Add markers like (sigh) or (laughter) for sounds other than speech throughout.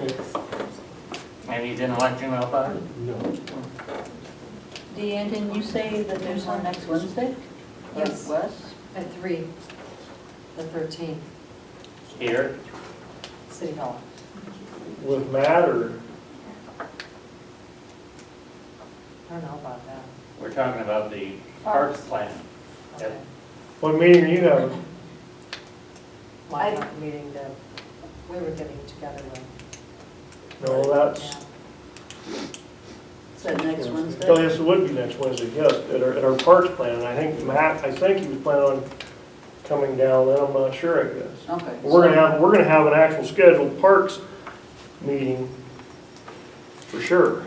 Okay. Maybe you didn't let you know about it? No. Deanne, didn't you say that there's one next Wednesday? Yes. Or it was? At three, the thirteenth, Here, City Hall. With Matt or, I don't know about that. we're talking about the parks plan. Yep. Okay. what meeting are you having? My I- meeting that we were getting together with. No, that's, Is that next oh, Wednesday? yes, it would be next Wednesday, yes, at our, at our parks plan. I think Matt, I think he was planning on coming down then, I'm not sure, I guess. Okay. We're gonna have, we're gonna have an actual scheduled parks meeting for sure.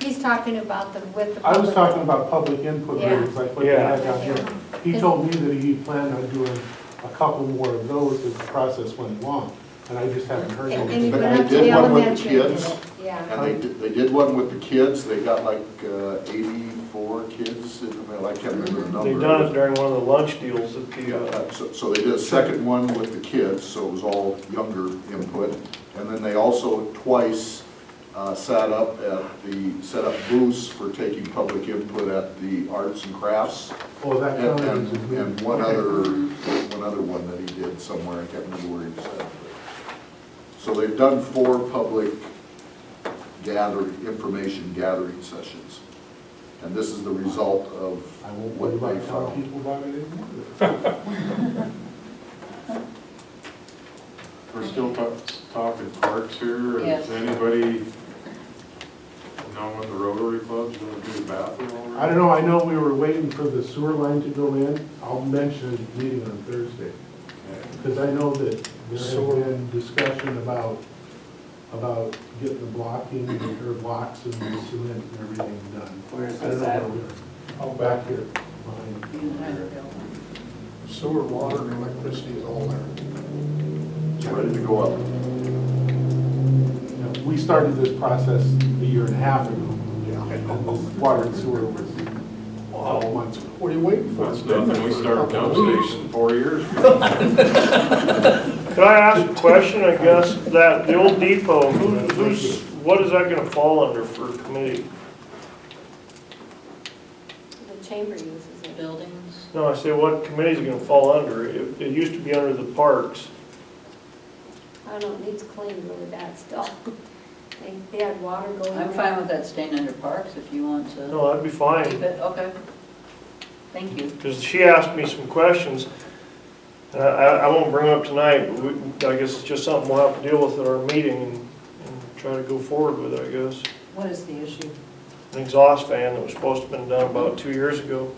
He's talking about the, with the. I was public. talking about public input Yeah. meetings, like what they Yeah. had down here. He told me that he planned on doing a couple more of those as the process went along, and I just haven't heard And and he anything. went But they up to did the one with the elementary. and did kids. it. Yeah. And they did, they did one with the kids, they got like uh, eighty-four kids, in the middle. I can't remember the number. They Mm-hmm. done it during one of the lunch deals at the, uh, Uh, So, so they did a second one with the kids, so it was all younger input. And then they also twice uh, sat up at the, set up booths for taking public input at the arts and crafts. Well, that And, Oh, counted as a and- meeting. and one other, one other one that he did somewhere, I can't remember where he said. So they've done four public gathering, information gathering sessions. And this is the result of I won't worry what they about telling found. people about it anymore. We're still ta- talking parks here. and Yes. Does anybody know when the Rotary Club's gonna do the bathroom over? I don't know, I know we were waiting for the sewer line to go in. I'll mention it at the meeting on Thursday, Okay. because I know that there had been discussion about, about getting the blocking, or blocks and the cement and everything done. where is I don't this know at? where we are. Oh, back here, behind. Sewer, water, and electricity is all there. It's ready to go up. You know, We started this process a year and a half ago, and then the water and sewer was a couple months ago. What are you waiting for? That's nothing, we started dump station four years ago. Could I ask a question, I guess, that, the old depot, who- who's, what is that gonna fall under for committee? The chamber uses it. Buildings, No, I say, what committee's it gonna fall under? It, it used to be under the parks. I don't know, it needs cleaned really bad still. (laughs) They, they had water going. I'm in. fine with that staying under parks if you want to No, that'd be keep fine, it, okay. Thank you. because she asked me some questions, and I, I I won't bring them up tonight, but we, I guess it's just something we'll have to deal with at our meeting and, and try to go forward with, it, I guess. What is the issue? An exhaust fan that was supposed to have been done about two years ago.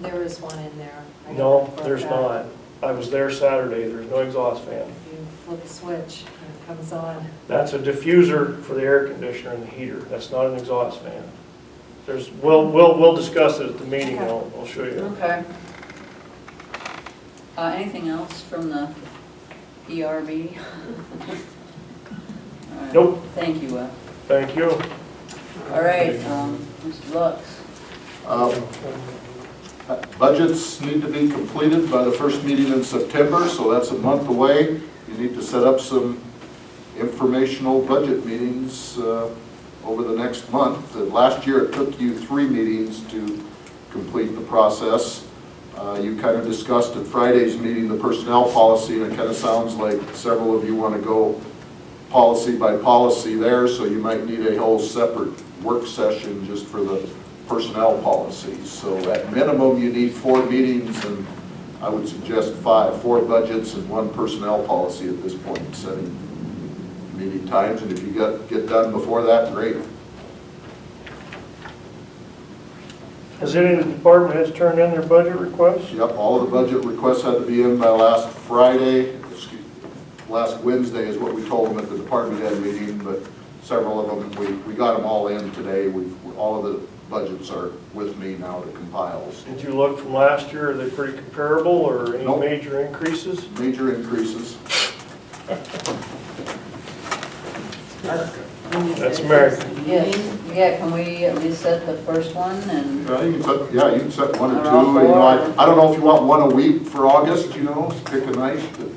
There is one in there. I know No, for a there's fact. not. I was there Saturday, there's no exhaust fan. You flip a switch and it comes on. That's a diffuser for the air conditioner and the heater. That's not an exhaust fan. There's, we'll, we'll, we'll discuss it at the meeting, and I'll, I'll show you. Okay. Uh, anything else from the ERB? (laughs) All right. Nope. Thank you, Will. Thank you. All right, um, Mr. Lux. Um, Uh, Budgets need to be completed by the first meeting in September, so that's a month away. You need to set up some informational budget meetings uh, over the next month. Uh, Last year, it took you three meetings to complete the process. Uh, You kind of discussed at Friday's meeting the personnel policy, and it kind of sounds like several of you want to go policy by policy there, so you might need a whole separate work session just for the personnel policies. So at minimum, you need four meetings, and I would suggest five, four budgets and one personnel policy at this point, setting meeting times, and if you get, get done before that, great. Has any of the department heads turned in their budget requests? Yep, all of the budget requests had to be in by last Friday, excuse, last Wednesday is what we told them at the department head meeting, but several of them, we, we got them all in today. We, all of the budgets are with me now to compile. so Did you look from last year, are they pretty comparable, or any Nope. major increases? Major increases. That's Mary. Yes, yeah, can we at least set the first one and, Yeah, you can set, yeah, you can set one or Around two, you know, I, four. I don't know if you want one a week for August, you know, pick a night, but